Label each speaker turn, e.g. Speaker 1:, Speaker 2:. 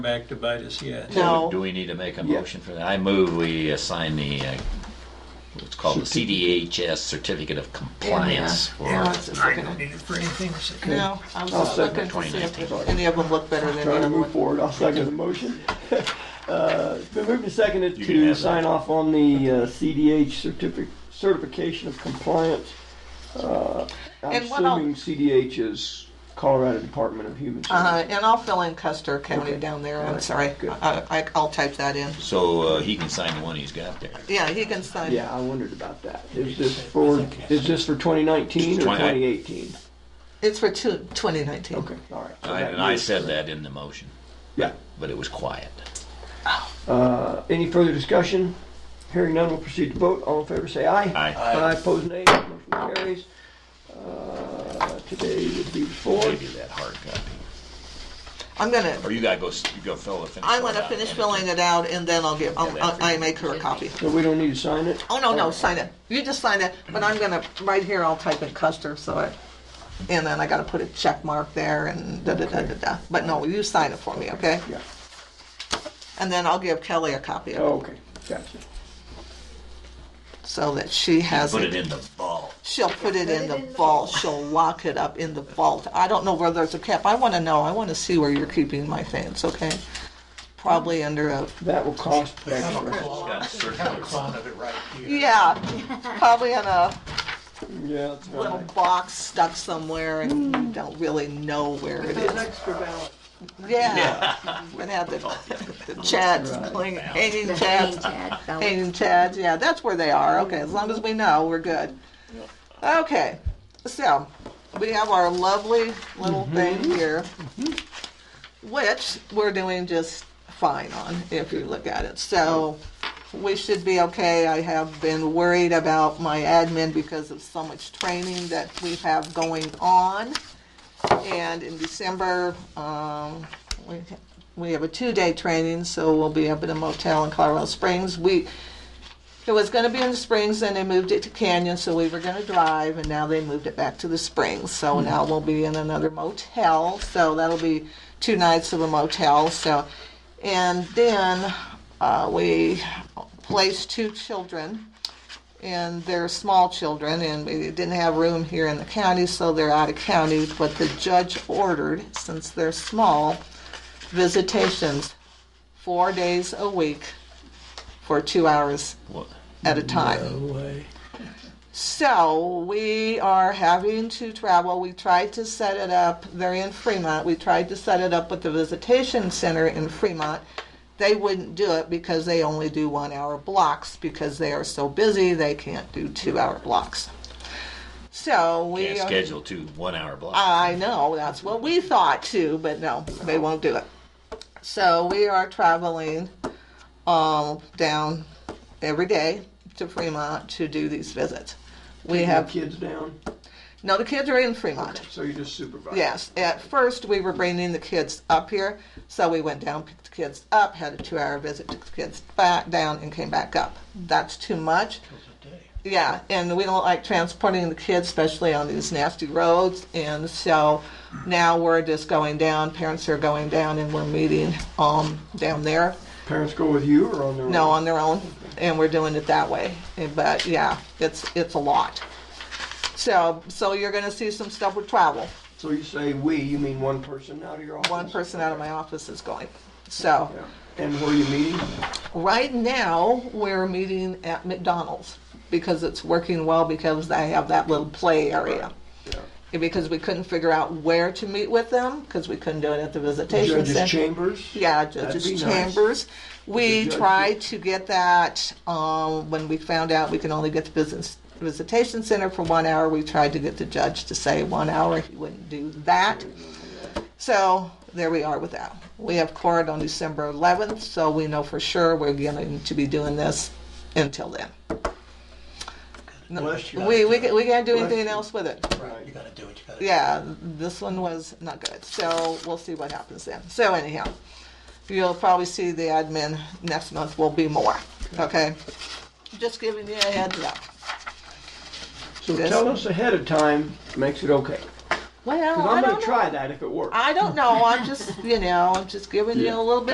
Speaker 1: back to bite us yet.
Speaker 2: No.
Speaker 3: Do we need to make a
Speaker 4: Yeah.
Speaker 3: motion for that? I move we assign the, uh, what's called the CDHS Certificate of Compliance for
Speaker 2: Yeah, I was just looking at-
Speaker 1: Need it for anything. so-
Speaker 2: No, I was
Speaker 4: I'll
Speaker 2: just looking
Speaker 4: second
Speaker 2: to see if
Speaker 3: 2019.
Speaker 2: any of them look better than the
Speaker 4: Trying to
Speaker 2: other
Speaker 4: move
Speaker 2: one.
Speaker 4: forward, I'll second the motion. Uh, It's been moved and seconded
Speaker 3: You can
Speaker 4: to
Speaker 3: have that.
Speaker 4: sign off on the uh, CDH certific- certification of compliance. Uh, I'm
Speaker 2: And what I'll-
Speaker 4: assuming CDH is Colorado Department of Human
Speaker 2: Uh,
Speaker 4: Services.
Speaker 2: and I'll fill in Custer County
Speaker 4: Okay.
Speaker 2: down there,
Speaker 4: All
Speaker 2: I'm
Speaker 4: right,
Speaker 2: sorry.
Speaker 4: good.
Speaker 2: I, I- I'll type that in.
Speaker 3: So uh, he can sign the one he's got there.
Speaker 2: Yeah, he can sign.
Speaker 4: Yeah, I wondered about that. Is this for, is this for 2019 or
Speaker 3: Twenty-
Speaker 4: 2018?
Speaker 2: It's for two, 2019.
Speaker 4: Okay, all right. So
Speaker 3: I-
Speaker 4: that
Speaker 3: And I
Speaker 4: is-
Speaker 3: said that in the motion,
Speaker 4: Yeah.
Speaker 3: but it was quiet.
Speaker 4: Uh, Any further discussion? Hearing none, we'll proceed to vote. All in favor, say aye.
Speaker 3: Aye.
Speaker 4: Aye, pose nay. Motion carries. Uh, Today would be the
Speaker 3: Give
Speaker 4: fourth.
Speaker 3: you that hard copy.
Speaker 2: I'm gonna,
Speaker 3: Or you gotta go, s- you go fill the finish.
Speaker 2: I
Speaker 3: one
Speaker 2: wanna
Speaker 3: out
Speaker 2: finish
Speaker 3: and-
Speaker 2: filling it out and then I'll give, I'll-
Speaker 3: Yeah,
Speaker 2: I'll-
Speaker 3: that
Speaker 2: I make her a copy.
Speaker 4: So we don't need to sign it?
Speaker 2: Oh, no, no, sign it. You just sign it, but I'm gonna, right here, I'll type in Custer, so I, and then I gotta put a check mark there and da-da-da-da-da. But no, you sign it for me, okay?
Speaker 4: Yeah,
Speaker 2: And then I'll give Kelly a copy of it,
Speaker 4: oh, okay, gotcha.
Speaker 2: so that she has
Speaker 3: Put it
Speaker 2: it.
Speaker 3: in the vault.
Speaker 2: She'll put it in the vault, she'll lock it up in the vault. I don't know where there's a cap, I wanna know, I wanna see where you're keeping my things, okay? Probably under a,
Speaker 4: That will cost extra.
Speaker 3: Got
Speaker 1: Have a
Speaker 3: circulars.
Speaker 1: clone of it right here.
Speaker 2: yeah, probably in a
Speaker 4: Yeah, that's
Speaker 2: little
Speaker 4: right.
Speaker 2: box stuck somewhere and you don't really know where it is.
Speaker 4: extra ballots.
Speaker 2: Yeah. And have the, the chads, cling- hanging chads, hanging chads, yeah, that's where they are, okay, as long as we know, we're good. Okay, so, we have our lovely little thing here, which we're doing just fine on, if you look at it, so we should be okay. I have been worried about my admin because of so much training that we have going on. And in December, um, we, we have a two-day training, so we'll be up at a motel in Colorado Springs. We, it was gonna be in the Springs, and they moved it to Canyon, so we were gonna drive, and now they moved it back to the Springs. So now we'll be in another motel, so that'll be two nights of a motel, so. And then, uh, we placed two children and they're small children, and we didn't have room here in the county, so they're out of county. But the judge ordered, since they're small, visitations four days a week for two hours
Speaker 3: What?
Speaker 2: at a time.
Speaker 1: No way.
Speaker 2: So we are having to travel. We tried to set it up. They're in Fremont. We tried to set it up with the visitation center in Fremont. They wouldn't do it because they only do one hour blocks because they are so busy they can't do two hour blocks. So we
Speaker 3: Can't
Speaker 2: are-
Speaker 3: schedule two one-hour blocks.
Speaker 2: I know, that's what we thought too, but no, they won't do it. So we are traveling um, down every day to Fremont to do these visits. We have,
Speaker 4: Kids down,
Speaker 2: no, the kids are in Fremont.
Speaker 4: so you just supervise.
Speaker 2: Yes, at first we were bringing the kids up here, so we went down, picked the kids up, had a two hour visit, took the kids back down, and came back up. That's too much. Yeah, and we don't like transporting the kids, especially on these nasty roads. And so now we're just going down. Parents are going down, and we're meeting um, down there.
Speaker 4: Parents go with you or on their own?
Speaker 2: No, on their own, and we're doing it that way. And- But yeah, it's it's a lot. So so you're going to see some stuff with travel.
Speaker 4: So you say "we," you mean one person out of your office?
Speaker 2: One person out of my office is going. So
Speaker 4: Yeah. And where are you meeting?
Speaker 2: right now we're meeting at McDonald's because it's working well because they have that little play area.
Speaker 4: Yeah.
Speaker 2: because we couldn't figure out where to meet with them because we couldn't do it at the visitation
Speaker 4: Judges
Speaker 2: center.
Speaker 4: Chambers?
Speaker 2: Yeah,
Speaker 4: That'd
Speaker 2: judges'
Speaker 4: be nice.
Speaker 2: chambers. We
Speaker 4: The judge-
Speaker 2: tried to get that um, when we found out we can only get the business visitation center for one hour. We tried to get the judge to say one hour. He wouldn't do that. So there we are with that. We have court on December 11th, so we know for sure we're going to be doing this until then.
Speaker 4: Bless you.
Speaker 2: We, we, ca- we can't do
Speaker 4: Bless
Speaker 2: anything
Speaker 4: you.
Speaker 2: else with it
Speaker 4: Right.
Speaker 1: You gotta do what you gotta do.
Speaker 2: yeah, this one was not good. So we'll see what happens then. So anyhow, you'll probably see the admin next month will be more. Okay, just giving you a heads up.
Speaker 4: So
Speaker 2: Yes.
Speaker 4: tell us ahead of time, makes it okay.
Speaker 2: Well,
Speaker 4: Because
Speaker 2: I
Speaker 4: I'm
Speaker 2: don't
Speaker 4: gonna
Speaker 2: know.
Speaker 4: try that if it works.
Speaker 2: I don't know. I'm just you know I'm just giving you a little bit.